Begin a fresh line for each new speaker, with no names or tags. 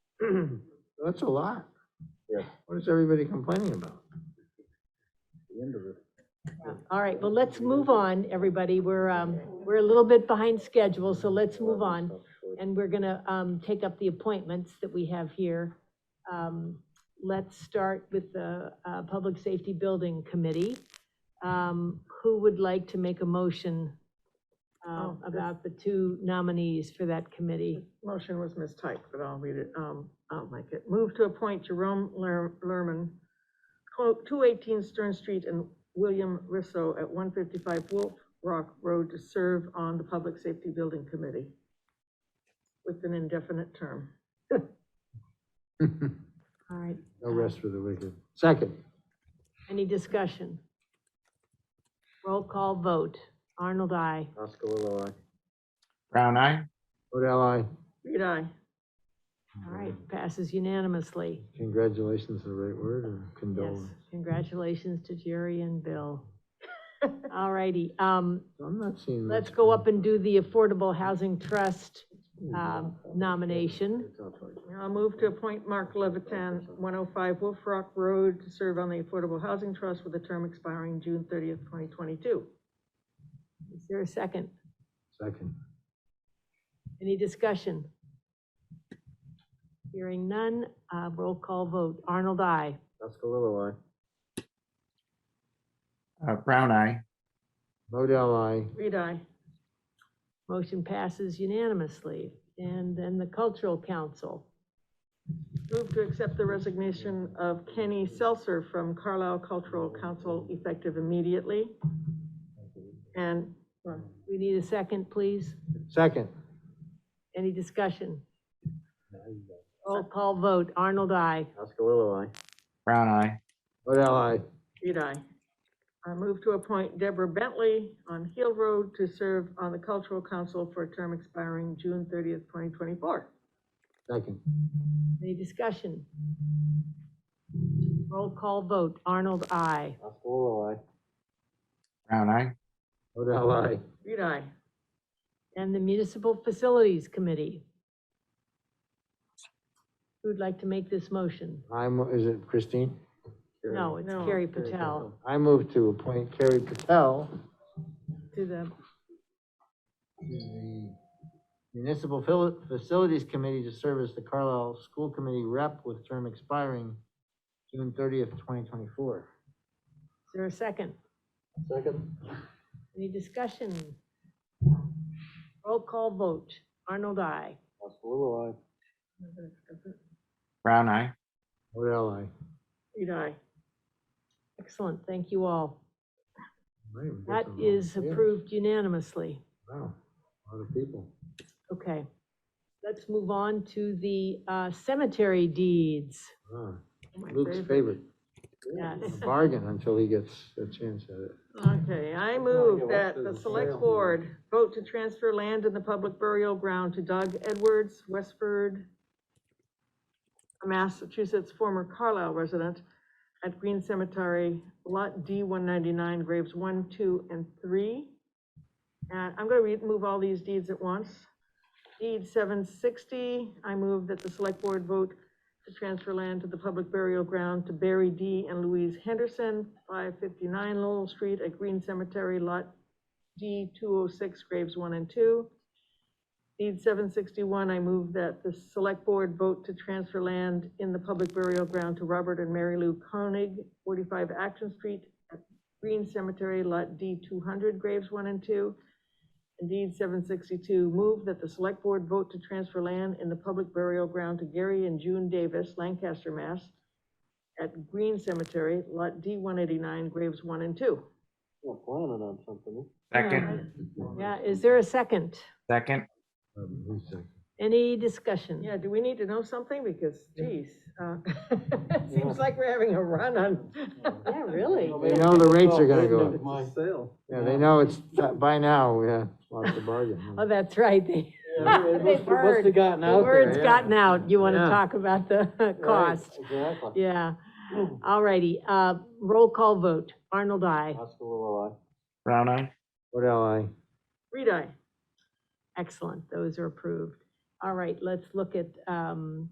That's a lot.
Yeah.
What is everybody complaining about?
The end of it.
All right, well, let's move on, everybody. We're, um, we're a little bit behind schedule, so let's move on. And we're gonna, um, take up the appointments that we have here. Um, let's start with the, uh, Public Safety Building Committee. Um, who would like to make a motion, uh,
Oh, this-
about the two nominees for that committee?
Motion was mistyped, but I'll read it, um, I'll make it. Move to appoint Jerome Ler- Lerman, two eighteen Stern Street and William Risso at one fifty-five Wolf Rock Road to serve on the Public Safety Building Committee with an indefinite term.
No
All right,
rest for the wicked. Second,
any discussion? Roll call vote. Arnold, I.
Oscar Lilloye.
Brown eye?
Odell, I,
Reed, I.
All right, passes unanimously.
congratulations, is the right word, or
Yes,
condolence?
congratulations to Jerry and Bill. All righty, um,
I'm not seeing.
let's
much.
go up and do the Affordable Housing Trust, um, nomination.
I'll move to appoint Mark Levitan, one oh five Wolf Rock Road to serve on the Affordable Housing Trust with a term expiring June thirtieth, twenty twenty-two.
Is there a second?
Second.
Any discussion? Hearing none, uh, roll call vote. Arnold, I.
Oscar Lilloye.
Uh, brown eye.
Odell, I,
Reed, I.
Motion passes unanimously. And then the Cultural Council.
Move to accept the resignation of Kenny Seltzer from Carlisle Cultural Council effective immediately. And, well,
We need a second, please.
second.
Any discussion? Roll call vote. Arnold, I.
Oscar Lilloye.
Brown eye.
Odell, I,
read I. I move to appoint Deborah Bentley on Hill Road to serve on the Cultural Council for a term expiring June thirtieth, twenty twenty-four.
second.
Any discussion? Roll call vote. Arnold, I.
Oscar Lilloye.
Brown eye.
Odell, I,
Read I.
And the Municipal Facilities Committee. Who'd like to make this motion?
I'm, is it Christine?
No, it's
No,
Carrie Patel
I move to appoint Carrie Patel
to the,
to the Municipal Fili- Facilities Committee to serve as the Carlisle School Committee rep with term expiring June thirtieth, twenty twenty-four.
is there a second?
Second.
Any discussion? Roll call vote. Arnold, I.
Oscar Lilloye.
Mm-hmm.
Brown eye.
Odell, I.
Read I.
Excellent, thank you all.
Right, we got
That
some
is
volunteers.
approved unanimously.
Wow, a lot of people.
Okay. Let's move on to the uh, cemetery deeds.
Wow.
My
Luke's favorite,
Yes.
a bargain until he gets a chance at it.
Okay, I move that the select board vote to transfer land in the public burial ground to Doug Edwards, Westford, Massachusetts, former Carlisle resident, at Green Cemetery, Lot D one ninety-nine, graves one, two, and three. And I'm gonna read, move all these deeds at once. Deed seven sixty, I move that the select board vote to transfer land to the public burial ground to Barry D. and Louise Henderson, 559 Lowell Street at Green Cemetery, Lot D, 206, Graves 1 and 2. Deed 761, I move that the Select Board vote to transfer land in the public burial ground to Robert and Mary Lou Koenig, 45 Action Street at Green Cemetery, Lot D, 200, Graves 1 and 2. Indeed, seven sixty-two, move that the select board vote to transfer land in the public burial ground to Gary and June Davis, Lancaster, Mass. At Green Cemetery, lot D one eighty-nine, graves one and two.
You're planning on something.
Second.
Yeah, is there a second?
Second.
Um, who's second?
Any discussion?
Yeah, do we need to know something? Because geez, uh, seems like we're having a run on.
Yeah, really?
They know the rates are gonna go up.
My sale.
Yeah, they know it's, uh, by now, yeah, lots of bargain.
Oh, that's right, they.
What's
They've heard.
the gotten
The
out there?
word's
yeah.
gotten out, you want to
Yeah.
talk about the
Right, Hmm.
cost,
Exactly.
yeah. All righty, uh, roll call vote, Arnold, I.
Oscar Lilloye.
Brown eye.
Odell, I.
Reed, I.
Excellent, those are approved. All right, let's look at um,